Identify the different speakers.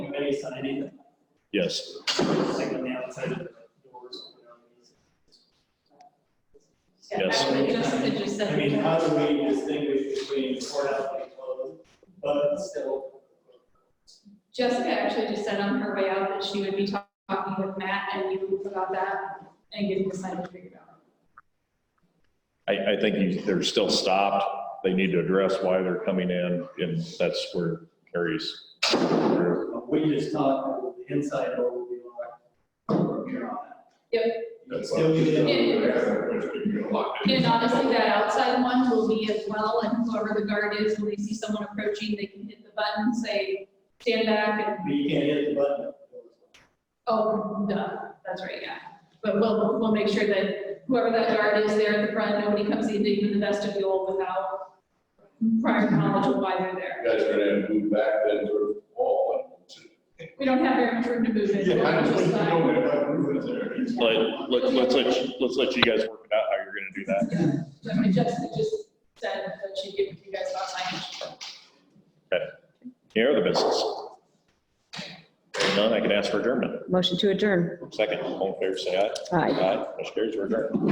Speaker 1: way signing,
Speaker 2: Yes.
Speaker 1: like on the outside of the doors.
Speaker 2: Yes.
Speaker 3: It just, it just said.
Speaker 1: I mean, uh, how do we distinguish between courthouse and closed, but still?
Speaker 3: Jessica actually just said on her way out that she would be talk- talking with Matt and you about that and getting the signage figured out.
Speaker 2: I, I think you- they're still stopped. They need to address why they're coming in, and that's where Carrie's.
Speaker 1: We just thought the inside door would be locked from here on out.
Speaker 3: Yep.
Speaker 1: It's Still get in.
Speaker 3: And honestly, that outside one will be as well, and whoever the guard is, when they see someone approaching, they can hit the button, say, stand back and,
Speaker 1: But you can't hit the button.
Speaker 3: oh, duh, that's right, yeah. But we'll, we'll make sure that whoever that guard is there at the front, nobody comes into even the vestibule without prior knowledge of why they're there.
Speaker 4: You guys are gonna have to move back that sort of wall.
Speaker 3: We don't have very much room to move it.
Speaker 4: Yeah, I just, you
Speaker 3: We'll
Speaker 4: know, that roof is there. It's
Speaker 2: But let's, let's let, you- let's let you guys work it out how you're gonna do that.
Speaker 3: I mean, Jessica just said that she'd give you guys about signage.
Speaker 2: Any other business? Hearing None, I can ask for adjournment.
Speaker 5: Motion to adjourn.
Speaker 2: Second, all in favor, say aye.
Speaker 5: Aye.
Speaker 2: Aye, motion carries, we're adjourned.